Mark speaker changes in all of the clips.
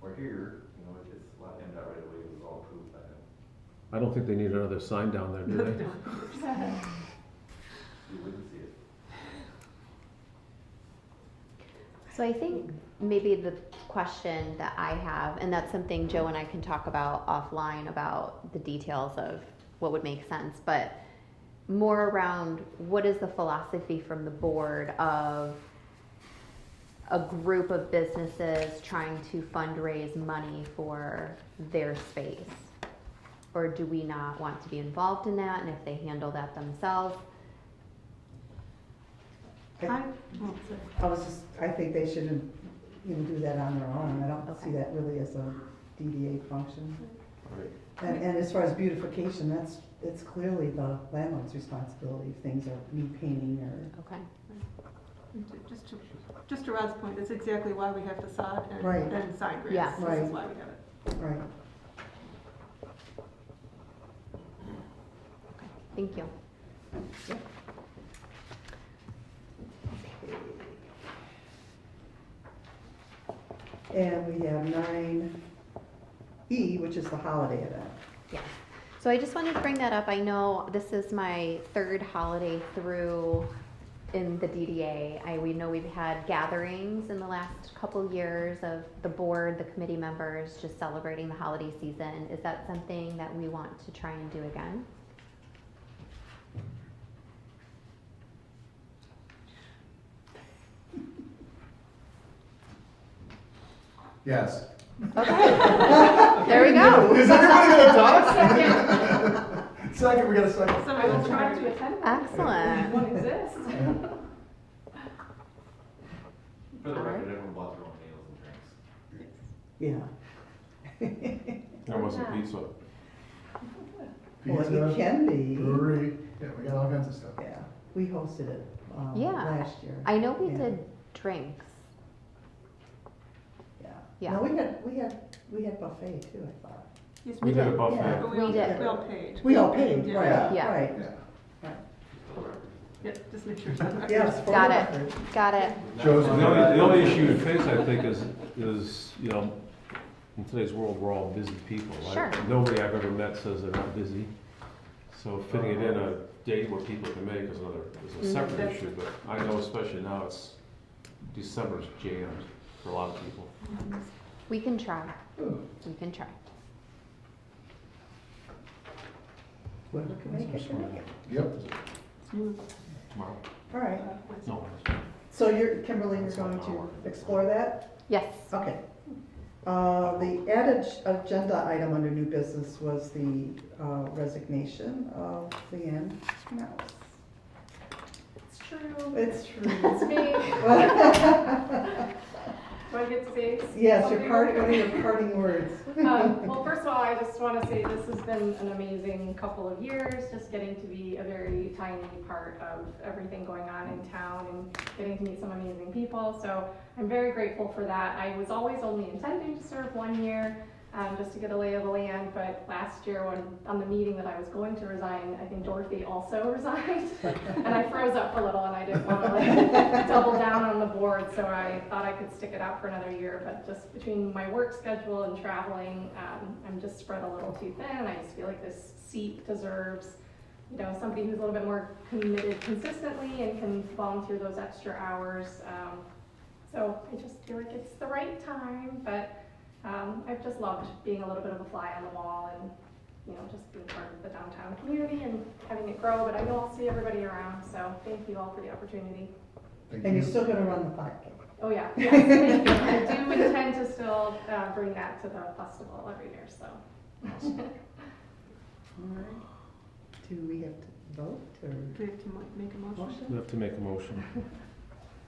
Speaker 1: Or here, you know, it's, it's lot M dot right away, it was all approved by them.
Speaker 2: I don't think they need another sign down there, do they?
Speaker 1: You wouldn't see it.
Speaker 3: So I think maybe the question that I have, and that's something Joe and I can talk about offline about the details of what would make sense, but more around what is the philosophy from the board of a group of businesses trying to fundraise money for their space? Or do we not want to be involved in that? And if they handle that themselves?
Speaker 4: I I was just, I think they shouldn't even do that on their own. I don't see
Speaker 3: Okay.
Speaker 4: that really as a DDA function.
Speaker 1: All right.
Speaker 4: And, and as far as beautification, that's, it's clearly the landlord's responsibility if things are need painting or.
Speaker 3: Okay.
Speaker 5: Just to, just to Rod's point, that's exactly why we have facade
Speaker 4: Right.
Speaker 5: and, and side grids.
Speaker 3: Yeah.
Speaker 5: This
Speaker 4: Right.
Speaker 5: is why we have it.
Speaker 4: Right.
Speaker 3: Thank you.
Speaker 4: And we have nine E, which is the holiday event.
Speaker 3: Yeah. So I just wanted to bring that up. I know this is my third holiday through in the DDA. I, we know we've had gatherings in the last couple years of the board, the committee members, just celebrating the holiday season. Is that something that we want to try and do again?
Speaker 6: Yes.
Speaker 3: There we go.
Speaker 6: Is everybody gonna talk? Second, we got a second.
Speaker 5: Somebody will try to attend.
Speaker 3: Excellent.
Speaker 1: For the
Speaker 3: All right.
Speaker 1: record, everyone bought their own meals and drinks.
Speaker 4: Yeah.
Speaker 2: There wasn't pizza.
Speaker 4: Well, it
Speaker 6: Pizza,
Speaker 4: can be.
Speaker 6: brewery, yeah, we got all kinds of stuff.
Speaker 4: Yeah. We hosted it, um,
Speaker 3: Yeah.
Speaker 4: last year.
Speaker 3: I know we
Speaker 4: Yeah.
Speaker 3: did drinks.
Speaker 4: Yeah.
Speaker 3: Yeah.
Speaker 4: No, we had, we had, we had buffet too, I thought.
Speaker 5: Yes,
Speaker 2: We did a
Speaker 4: Yeah.
Speaker 2: buffet.
Speaker 5: But we
Speaker 3: We
Speaker 5: all,
Speaker 3: did.
Speaker 5: we all paid.
Speaker 4: We all paid, right,
Speaker 3: Yeah.
Speaker 4: right.
Speaker 6: Yeah.
Speaker 5: Yeah, just make sure. it's-
Speaker 4: Yes, for
Speaker 3: Got
Speaker 4: the
Speaker 3: it.
Speaker 4: record.
Speaker 3: Got it.
Speaker 6: Joe's-
Speaker 2: The only, the only issue you face, I think, is, is, you know, in today's world, we're all busy people. right?
Speaker 3: Sure.
Speaker 2: Nobody I've ever met says they're not busy. So fitting it in a day where people can make is another, is a separate
Speaker 5: That's-
Speaker 2: issue, but I know especially now it's, December's jammed for a lot of people.
Speaker 3: We can try. We can try.
Speaker 4: Whoever can make it, can make it.
Speaker 6: Yep.
Speaker 2: Tomorrow?
Speaker 4: All right,
Speaker 2: No.
Speaker 4: so you're, Kimberly, you're going to explore that?
Speaker 3: Yes.
Speaker 4: Okay. Uh, the added agenda item under new business was the uh, resignation of Leanne Mouse.
Speaker 7: It's true.
Speaker 4: It's
Speaker 7: It's
Speaker 4: true.
Speaker 7: me. Do I get to say?
Speaker 4: Yes, your
Speaker 7: something?
Speaker 4: part, one of your parting words.
Speaker 7: Um, well, first of all, I just want to say this has been an amazing couple of years, just getting to be a very tiny part of everything going on in town and getting to meet some amazing people. So I'm very grateful for that. I was always only intending to serve one year, um, just to get a lay of the land. But last year, when on the meeting that I was going to resign, I think Dorothy also resigned, and I froze up a little, and I didn't want to like double down on the board. So I thought I could stick it out for another year, but just between my work schedule and traveling, um, I'm just spread a little too thin. I just feel like this seat deserves you know, somebody who's a little bit more committed consistently and can volunteer those extra hours. Um, so I just feel like it's the right time, but um, I've just loved being a little bit of a fly on the wall and, you know, just being part of the downtown community and having it grow. But I know I'll see everybody around, so thank you all for the opportunity.
Speaker 6: Thank
Speaker 4: And
Speaker 6: you.
Speaker 4: you're still gonna run the 5K.
Speaker 7: Oh, yeah, yes, thank you. I do intend to still uh, bring that to the festival every year, so.
Speaker 4: All right. Do we have to vote or?
Speaker 5: We have to mo- make a motion.
Speaker 2: We have to make a motion.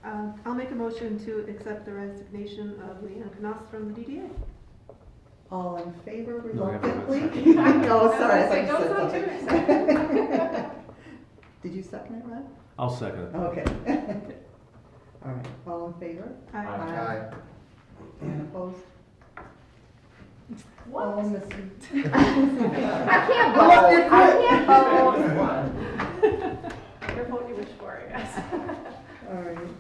Speaker 5: Uh, I'll make a motion to accept the resignation of Leanne Knos from the DDA.
Speaker 4: All in favor
Speaker 2: No, we haven't
Speaker 4: reluctantly?
Speaker 2: had
Speaker 4: No, sorry. I thought you
Speaker 7: I was
Speaker 4: said
Speaker 7: gonna say,
Speaker 4: something.
Speaker 7: don't sound too excited.
Speaker 4: Did you second it, Rod?
Speaker 2: I'll second it.
Speaker 4: Okay. All right, all in favor?
Speaker 5: Aye.
Speaker 6: Aye.
Speaker 4: And opposed?
Speaker 7: What?
Speaker 4: All missing.
Speaker 3: I can't vote. I can't vote.
Speaker 7: Your vote you wish for, I guess.
Speaker 4: All right.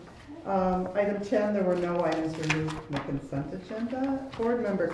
Speaker 4: Um, Item 10, there were no items removed from the consent agenda. Board member